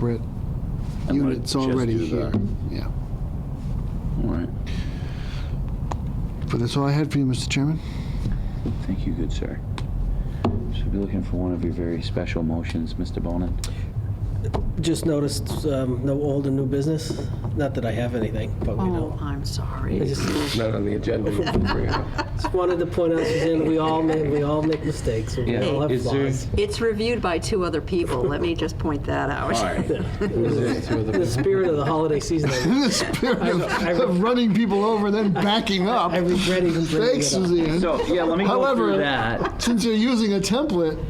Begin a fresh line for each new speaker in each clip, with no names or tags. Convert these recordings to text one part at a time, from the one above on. separate
might
units
just do
already here.
that.
Yeah.
All right.
But that's all I had for you, Mr. Chairman.
Thank you, good sir. Should be looking for one of your very special motions, Mr. Bonin.
Just noticed um, no old and new business. Not that I have anything, but we
Oh,
know.
I'm
I
sorry.
just
Not on the agenda.
just wanted to point out, Suzanne, we all make, we all make mistakes. and We
Yeah,
all have
is there-
flaws.
It's reviewed by two other people. Let me just point that out.
In the spirit of the holiday season, I-
In the spirit of, of running people over and then backing up.
I regret even bringing
Thanks,
it up.
Suzanne.
So, yeah, let me go
However-
through that.
Since you're using a template,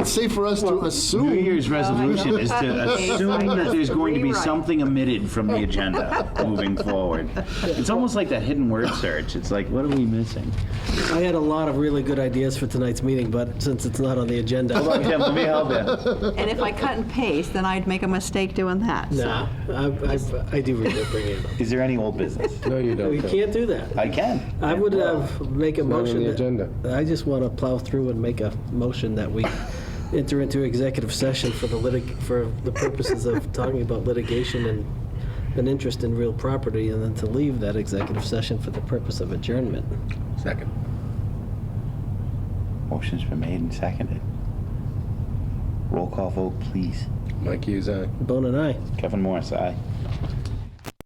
it's safe for us to
New
assume.
Year's resolution is to assume that there's going to be something omitted from the agenda moving forward. It's almost like that hidden word search. It's like, what are we missing?
I had a lot of really good ideas for tonight's meeting, but since it's not on the agenda,
Tim, let me help you.
And if I cut and paste, then I'd make a mistake doing that. so.
nah, I, I, I do regret bringing it up.
Is there any old business?
No, you don't.
We
Tom.
can't do that.
I can.
I would have, make a
Not on
motion.
the
that-
agenda.
I just want to plow through and make a motion that we enter into executive session for the litig, for the purposes of talking about litigation and an interest in real property, and then to leave that executive session for the purpose of adjournment.
Second.
Motion's been made and seconded. Roll call vote, please.
Mike uh, Hughes, aye.
Bone and I.
Kevin Morris, aye.